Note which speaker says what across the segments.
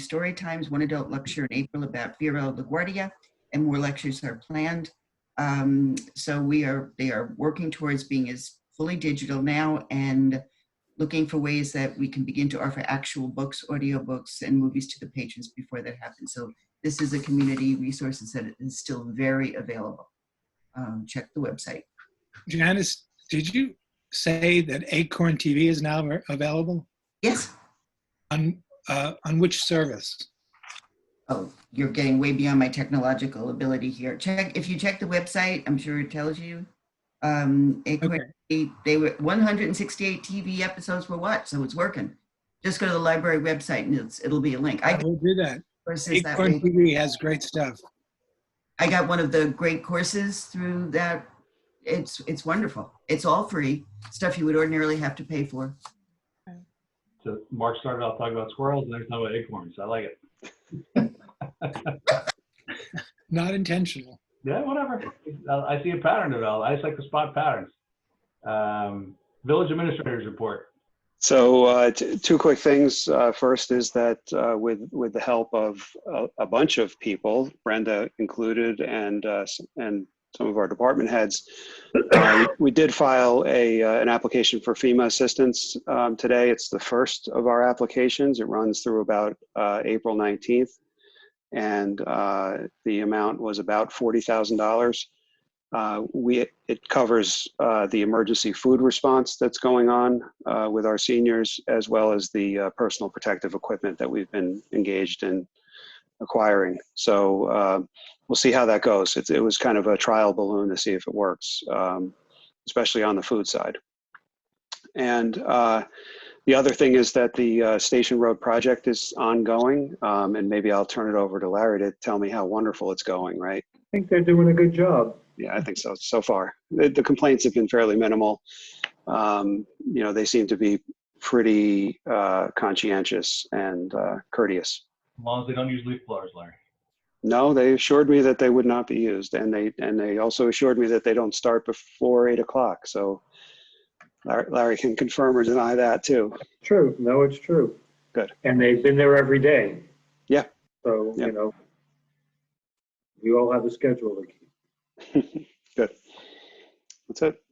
Speaker 1: story times, one adult lecture in April about Vero LaGuardia, and more lectures are planned. Um, so we are, they are working towards being as fully digital now and looking for ways that we can begin to offer actual books, audiobooks, and movies to the patrons before that happens. So this is a community resource that is still very available. Um, check the website.
Speaker 2: Janice, did you say that Acorn TV is now av- available
Speaker 1: Yes.
Speaker 2: on uh, on which service?
Speaker 1: Oh, you're getting way beyond my technological ability here. Check if you check the website. I'm sure it tells you. Um, Acorn, they, they were 168 TV episodes were watched, so it's working. Just go to the library website and it's, it'll be a link. I
Speaker 2: I
Speaker 1: got
Speaker 2: will do that.
Speaker 1: courses that
Speaker 2: Acorn
Speaker 1: way.
Speaker 2: TV has great stuff.
Speaker 1: I got one of the great courses through that. It's it's wonderful. It's all free stuff you would ordinarily have to pay for.
Speaker 3: So Mark started off talking about squirrels and there's no acorns. I like it.
Speaker 2: Not intentional.
Speaker 3: Yeah, whatever. I I see a pattern develop. I just like to spot patterns. Um, village administrators report.
Speaker 4: So uh, t- two quick things. Uh, first is that uh, with with the help of a, a bunch of people, Brenda included, and uh, s- and some of our department heads, uh, we did file a uh, an application for FEMA assistance um, today. It's the first of our applications. It runs through about uh, April nineteenth, and uh, the amount was about forty thousand dollars. Uh, we it covers uh, the emergency food response that's going on uh, with our seniors, as well as the uh, personal protective equipment that we've been engaged in acquiring. So uh, we'll see how that goes. It, it was kind of a trial balloon to see if it works, um, especially on the food side. And uh, the other thing is that the uh, Station Road project is ongoing, um, and maybe I'll turn it over to Larry to tell me how wonderful it's going. Right.
Speaker 5: I think they're doing a good job.
Speaker 4: Yeah, I think so, so far. The, the complaints have been fairly minimal. Um, you know, they seem to be pretty uh, conscientious and uh, courteous.
Speaker 3: As long as they don't use leaf blowers, Larry.
Speaker 4: No, they assured me that they would not be used, and they and they also assured me that they don't start before eight o'clock. So Larry, Larry can confirm or deny that too.
Speaker 5: True. No, it's true.
Speaker 4: Good.
Speaker 5: And they've been there every day.
Speaker 4: Yeah.
Speaker 5: So,
Speaker 4: Yeah.
Speaker 5: you know, you all have a schedule to keep.
Speaker 4: Good. That's it.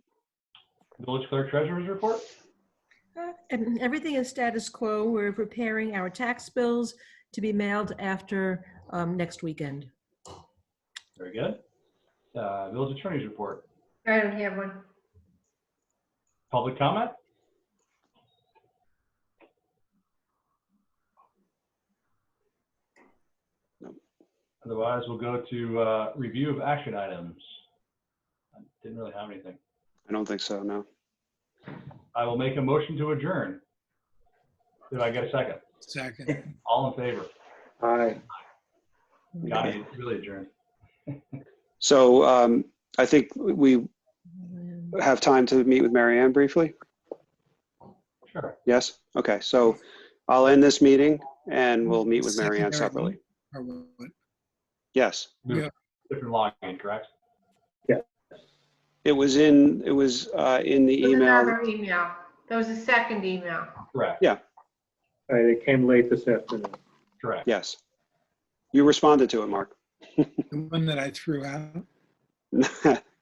Speaker 3: Village clerk treasurer's report.
Speaker 6: Uh, and Everything is status quo. We're preparing our tax bills to be mailed after um, next weekend.
Speaker 3: Very good. Uh, village attorney's report.
Speaker 7: I don't have one.
Speaker 3: Public comment. Otherwise, we'll go to uh, review of action items. I Didn't really have anything.
Speaker 4: I don't think so. No.
Speaker 3: I will make a motion to adjourn. Did I get a second?
Speaker 2: Second.
Speaker 3: All in favor?
Speaker 5: Aye.
Speaker 3: God, you really adjourned.
Speaker 4: So um, I think we have time to meet with Mary Ann briefly.
Speaker 3: Sure.
Speaker 4: Yes? Okay, so I'll end this meeting and we'll meet with Mary Ann
Speaker 2: Secondary
Speaker 4: separately.
Speaker 2: Or what?
Speaker 4: Yes.
Speaker 2: Yeah.
Speaker 3: Different login, correct?
Speaker 4: It was in, it was uh, in the
Speaker 7: It was
Speaker 4: email.
Speaker 7: another Email. That was the second email.
Speaker 3: Correct,
Speaker 5: All right, it came late this afternoon.
Speaker 3: correct.
Speaker 4: Yes. You responded to it, Mark.
Speaker 2: The one that I threw out.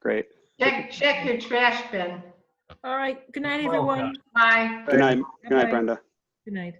Speaker 4: Great.
Speaker 7: Check, check your trash bin.
Speaker 6: All right, good night,
Speaker 3: Well
Speaker 6: everyone.
Speaker 3: done.
Speaker 7: Bye.
Speaker 4: Good night, good night,
Speaker 6: Bye-bye.
Speaker 4: Brenda.
Speaker 6: Good night.